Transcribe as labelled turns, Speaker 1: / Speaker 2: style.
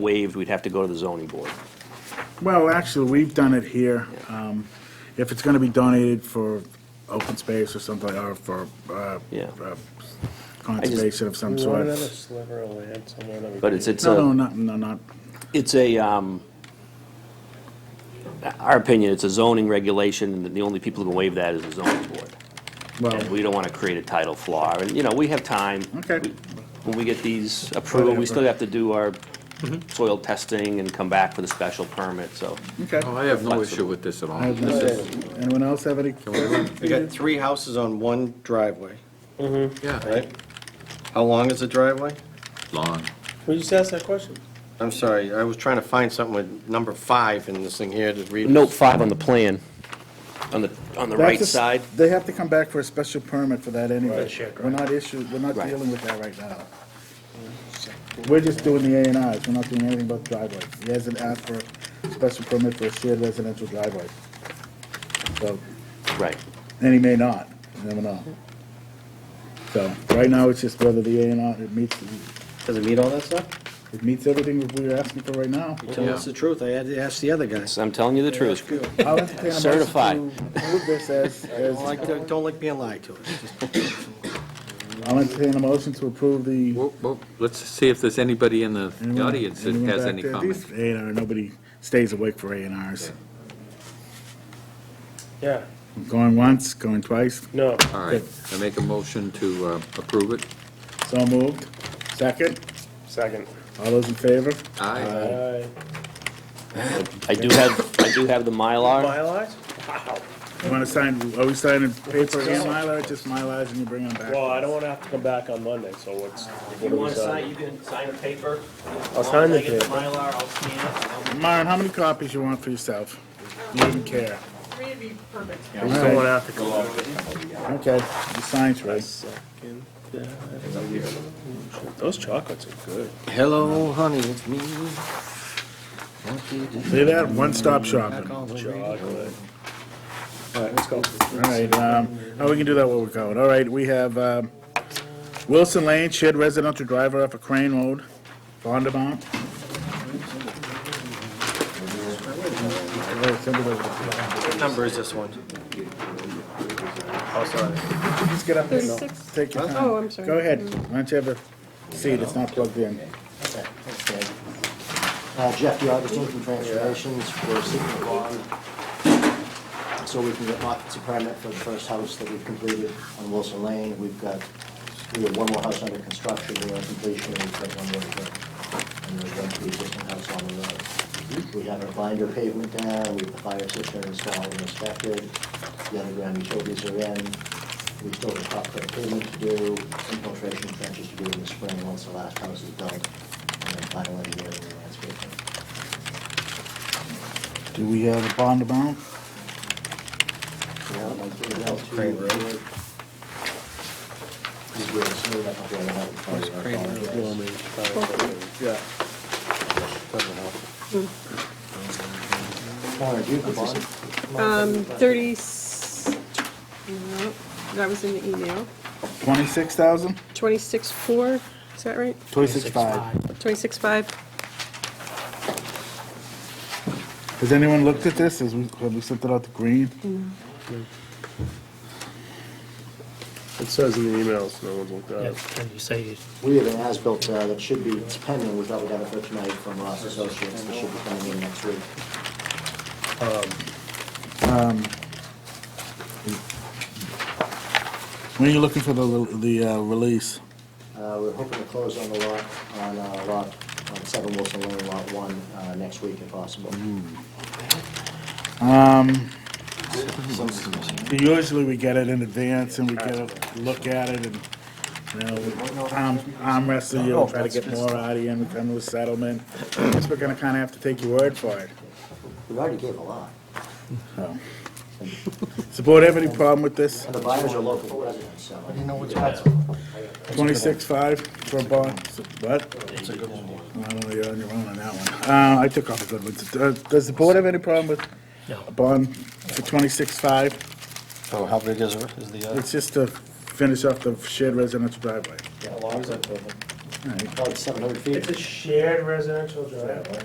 Speaker 1: waived, we'd have to go to the zoning board.
Speaker 2: Well, actually, we've done it here. Um, If it's going to be donated for open space or something, or for uh,
Speaker 1: Yeah.
Speaker 2: uh, conservation of some
Speaker 3: We
Speaker 2: sort.
Speaker 3: wanted a sliver of land somewhere that we.
Speaker 1: But it's,
Speaker 3: could-
Speaker 1: it's
Speaker 2: No, no,
Speaker 1: a,
Speaker 2: not, no, not,
Speaker 1: it's a, um, our opinion, it's a zoning regulation, and the only people who can waive that is the zoning board.
Speaker 2: well,
Speaker 1: And we don't want to create a title flaw, and, you know, we have time.
Speaker 2: Okay.
Speaker 1: We- When we get these approved, we still have to do our
Speaker 2: Mm-hmm.
Speaker 1: soil testing and come back with a special permit, so.
Speaker 2: okay.
Speaker 4: Oh, I have no issue with this at all.
Speaker 2: I have no-
Speaker 4: This is-
Speaker 2: Anyone else have any?
Speaker 5: We got three houses on one driveway,
Speaker 4: Yeah,
Speaker 5: right? How long is the driveway?
Speaker 4: long.
Speaker 3: We just asked that question.
Speaker 5: I'm sorry, I was trying to find something with number five in this thing here to read.
Speaker 1: Note five on the plan, on the, on the right
Speaker 2: That's a-
Speaker 1: side.
Speaker 2: They have to come back for a special permit for that anyway.
Speaker 3: Right, check,
Speaker 2: We're not issued, we're not
Speaker 1: Right.
Speaker 2: dealing with that right now. We're just doing the A and Rs, we're not doing anything about driveways. He hasn't asked for a special permit for a shared residential driveway. So,
Speaker 1: Right.
Speaker 2: and he may not, you never know. So, right now, it's just whether the A and R, it meets,
Speaker 5: Does it meet all that stuff?
Speaker 2: it meets everything that we're asking for right now.
Speaker 5: You're telling us the truth, I had to ask the other guy.
Speaker 1: So I'm telling you the truth.
Speaker 2: I'll entertain a motion
Speaker 1: Certified.
Speaker 2: to Move this as, as,
Speaker 5: Don't like, don't like being lied to.
Speaker 2: I'll entertain a motion to approve the.
Speaker 4: Well, well, let's see if there's anybody in the
Speaker 2: Anyone-
Speaker 4: audience that
Speaker 2: anyone
Speaker 4: has
Speaker 2: back
Speaker 4: any
Speaker 2: there?
Speaker 4: comments.
Speaker 2: These A and R, nobody stays awake for A and Rs.
Speaker 3: Yeah,
Speaker 2: Going once, going twice,
Speaker 3: no.
Speaker 4: All right, I make a motion to uh, approve it.
Speaker 2: so moved. Second,
Speaker 3: Second. Uh,
Speaker 2: all those in favor?
Speaker 4: Aye.
Speaker 3: Aye.
Speaker 1: I do have, I do have the Mylar.
Speaker 3: Mylars? Wow.
Speaker 2: You want to sign, are we signing paper and Mylar, just Mylars and you bring them back?
Speaker 3: Well, I don't want to have to come back on Monday, so what's? what do we
Speaker 1: you can sign a paper.
Speaker 3: I'll sign the paper.
Speaker 1: Mylar, I'll scan it.
Speaker 2: Myron, how many copies you want for yourself? You wouldn't care.
Speaker 6: Three would be perfect.
Speaker 3: We still want to have to go out.
Speaker 2: Okay, you sign, Trey.
Speaker 3: Second. Those chocolates are good.
Speaker 5: Hello, honey, it's me. Won't you
Speaker 2: See that, one-stop
Speaker 5: back
Speaker 2: shopping. All
Speaker 5: all the way?
Speaker 3: Chocolate.
Speaker 5: All right, let's go.
Speaker 2: right, um, oh, we can do that while we're going. All right, we have, um, Wilson Lane, shared residential driver off of Crane Road, Bondamount.
Speaker 5: What number is this one? Oh, sorry.
Speaker 2: Just get up there, Bill.
Speaker 6: 36.
Speaker 2: Take your time.
Speaker 6: Oh, I'm sorry.
Speaker 2: Go ahead. Why don't you have a seat? It's not plugged in.
Speaker 7: Uh, Jeff, you are just doing some transformations for seeking a bond, so we can get occupancy permit for the first house that we've completed on Wilson Lane. We've got, we have one more house under construction, we are completion, and we've got one more to go. And there's going to be existing house on the road. We have our binder pavement down, we have the fire system installed and inspected, the underground utilities are in. We still have top coat pavement to do, infiltration trenches to do in the spring, once the last house is built, and then final engineering and landscaping.
Speaker 2: Do we have a bond amount?
Speaker 7: Yeah, like, you know, to-
Speaker 5: Crane Road.
Speaker 7: Just where it's made up up there, that would probably-
Speaker 5: Yeah.
Speaker 7: Connor, do you have the bond?
Speaker 6: Um, thirty, no, that was in the email.
Speaker 2: Twenty-six thousand?
Speaker 6: Twenty-six four, is that right?
Speaker 2: Twenty-six five.
Speaker 6: Twenty-six five?
Speaker 2: Has anyone looked at this? Has we, have we sent it out to Green?
Speaker 3: It says in the emails, no one's looked at it.
Speaker 8: And you say you
Speaker 7: We have an as-built uh, that should be, it's pending, we thought we got it for tonight from Ross Associates, that should be coming in next week.
Speaker 2: When are you looking for the, the, uh, release?
Speaker 7: Uh, We're hoping to close on the lot, on uh, lot, on 7 Wilson Lane, Lot 1, uh, next week if possible.
Speaker 2: Usually we get it in advance and we get a look at it and, you know, we arm, arm wrestle you, try to get more out of you and we come to a settlement. Guess we're gonna kinda have to take your word for it.
Speaker 7: We already gave a lot.
Speaker 2: Support have any problem with this?
Speaker 7: And the buyers are local residents, so. I didn't know what's
Speaker 2: Twenty-six five for a bond, what? It's a good one. I don't know, you're on your own on that one. Uh, I took off a good one. Uh, Does the board have any problem with
Speaker 8: No.
Speaker 2: a bond for twenty-six five?
Speaker 5: So Oh, how big is, is the,
Speaker 2: It's just to finish off the shared residential driveway.
Speaker 5: How long is that building?
Speaker 9: All right.
Speaker 10: about seven hundred feet.
Speaker 7: It's a shared residential driveway.